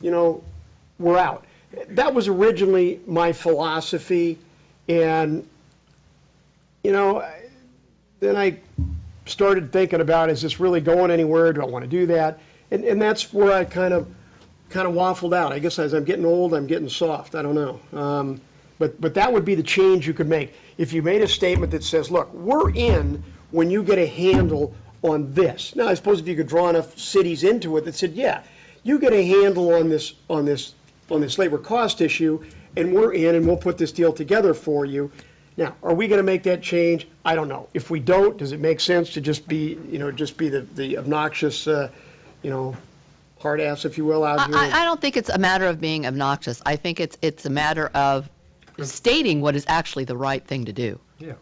you know, we're out. That was originally my philosophy, and, you know, I- then I started thinking about, is this really going anywhere? Do I want to do that? And, and that's where I kind of, kind of waffled out. I guess as I'm getting old, I'm getting soft. I don't know. Um, but, but that would be the change you could make. If you made a statement that says, look, we're in when you get a handle on this. Now, I suppose if you could draw enough cities into it that said, yeah, you get a handle on this, on this, on this labor cost issue, and we're in, and we'll put this deal together for you. Now, are we going to make that change? I don't know. If we don't, does it make sense to just be, you know, just be the, the obnoxious, uh, you know, hard ass, if you will, out here? I, I- I don't think it's a matter of being obnoxious. I think it's, it's a matter of stating what is actually the right thing to do. Yeah.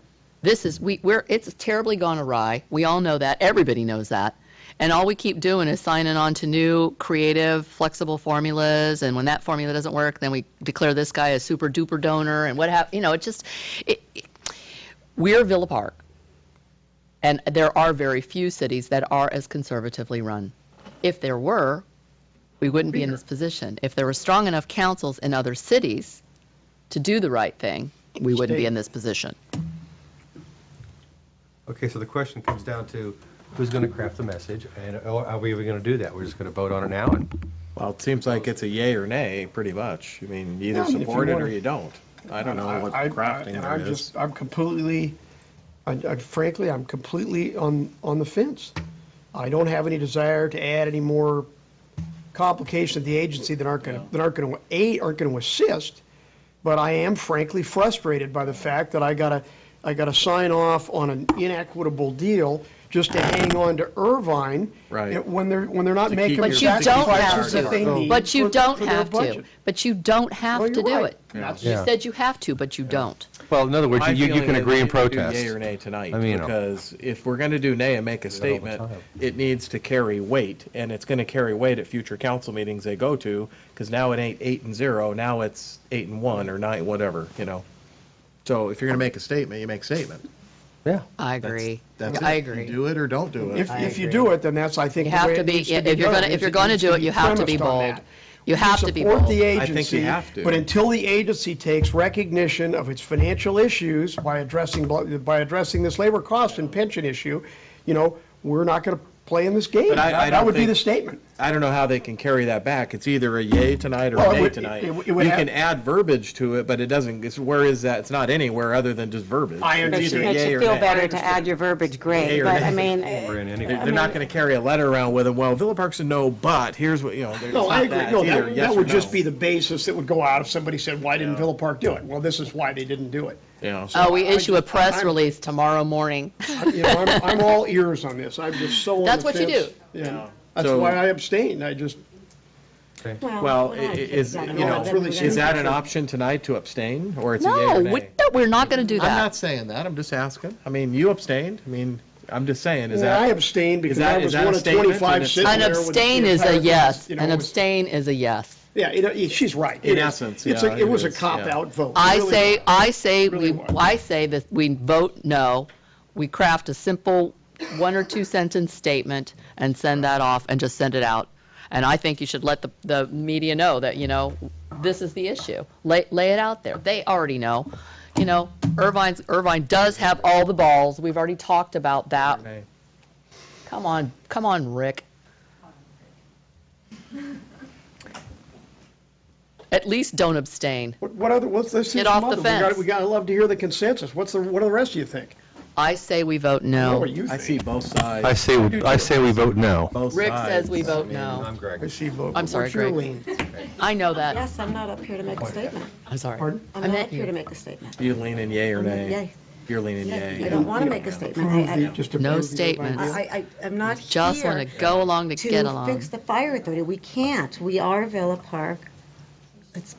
This is, we, we're, it's terribly gone awry. We all know that. Everybody knows that. And all we keep doing is signing on to new, creative, flexible formulas. And when that formula doesn't work, then we declare this guy a super duper donor and what have, you know, it just, it, it- we're Villa Park. And there are very few cities that are as conservatively run. If there were, we wouldn't be in this position. If there were strong enough councils in other cities to do the right thing, we wouldn't be in this position. Okay, so the question comes down to who's going to craft the message, and or are we even going to do that? We're just going to vote on it now, and Well, it seems like it's a yay or nay, pretty much. I mean, you Yeah, either I mean, if you support it or wanna- you don't. I don't know what I- I- crafting and there I'm is. just- I'm completely, I- I- frankly, I'm completely on, on the fence. I don't have any desire to add any more complications to the agency that aren't going, to that aren't going to, A, aren't going to assist, but I am frankly frustrated by the fact that I got to, I got to sign off on an inequitable deal just to hang on to Irvine. Right. you know, When they're, when they're not To making keep the But you your- don't have sacrifices that they to. need But you for- don't for their have to. budget. But you don't Well, have to you're do right. it. That's- You said you have to, but you don't. well, in other words, My you, you feeling can is we agree and need to do protest. Yay or nay tonight, I mean, you know. because if we're going to do nay and make Do a that all the statement, time. it needs to carry weight, and it's going to carry weight at future council meetings they go to, because now it ain't eight and zero, now it's eight and one or nine, whatever, you know. So if you're going to make a statement, you make a statement. Yeah. I That's- agree. That's it. I You agree. Do it or don't do it. If, if you do it, then that's, I think. You the have way to it be, needs if be you're done, going to, is if you're it going to needs do it, you have to be premised on bold. that. You have to be Support the bold. I think you agency. have to. But until the agency takes recognition of its financial issues by addressing, by addressing this labor cost and pension issue, you know, we're not going to play in this game. But I- I That don't would be think- the statement. I don't know how they can carry that back. It's either a yay tonight or Well, it a nay would- tonight. it would- it You would have- can add verbiage to it, but it doesn't, it's, where is that? It's not anywhere other than just verbiage. I It's Makes either you- understand. makes yay you or feel nay. better to add your verbiage, Yay great, or but nay. I mean, We're in eh, They're anyway. they're not going to carry a letter around with them, well, Villa Park's a no, but here's what, you know. there's No, I not agree. that. No, It's either that, yes that or would just no. be the basis that would go out if somebody said, why didn't Villa Park do it? Well, this is why they didn't do it. Yeah. Oh, we I issue a just- press I'm- release tomorrow morning. You know, I'm, I'm all ears on this. I'm just so on That's the what you fence. do. Yeah. That's So- why I abstained. I just, Well, we're i- i- not is, you exactly know, No, it's really is that an option tonight to abstain, or it's a yay No, or we- nay? no, we're not going to do I'm not that. saying that, I'm just asking. I mean, you abstained, I mean, I'm just saying, is I that, abstained because that- I is was that a one of statement? 25 And it's- sitting there. An with the abstain is entire a class, yes. you know, An it was- abstain is a yes. Yeah, you know, yeah, she's right. In It is- essence, it's yeah, a- it It was a is, yeah. cop-out vote. I Really. say, I say, Really we, was. I say that we vote no, we craft a simple one or two sentence statement and send that off and just send it out. And I think you should let the, the media know that, you know, this is the issue. Lay, lay it out there. They already know. You know, Irvine's, Irvine does have all the balls. We've already talked about that. Nay. Come on, come on, Rick. At least don't abstain. What- What other, what's, let's see Get some off the other. We gotta- fence. We gotta love to hear the consensus. What's the, what do the rest of you think? I say we vote What no. do you I think? see both sides. I say we, I say we vote no. both Rick says sides. we vote I'm no. I Greg. see both. I'm sorry, What's your Greg. lean? I know that. yes, I'm not up here to make a statement. I'm sorry. Pardon? I'm not up here to make a statement. You leaning yay or I'm nay? yay. You're leaning yay. I don't want to make a statement. I- I- Just No approve the statement. idea. I, I, I'm not here. Just want to go along to get To along. fix the fire authority. We can't. We are Villa Park. Let's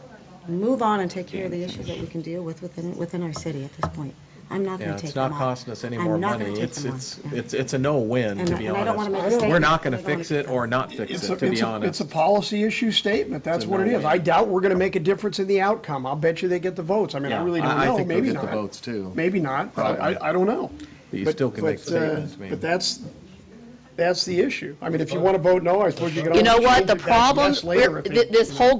move on and take care of the issues that we can deal with within, within our city at this point. I'm not Yeah, going to take it's them on. not costing us any I'm more not gonna money. take It's, them on. it's, Yeah. it's, it's a no-win, And- to be and I don't wanna make a honest. statement. We're not gonna I don't wanna fix it or not fix It's it, a, to be it's a, it's honest. a policy issue statement. That's It's a what it is. no-brainer. I doubt we're gonna make a difference in the outcome. I'll bet you they get the votes. I mean, I Yeah, really don't I- I know. think they'll Maybe get the not. votes, too. Maybe not, but I, I- I don't know. But you But- still can make but, uh, statements, I mean. But that's, that's the issue. I mean, if you want to vote no, I suppose you can You know always what? change The it back to problem, yes later we're- if you- th- this you know. whole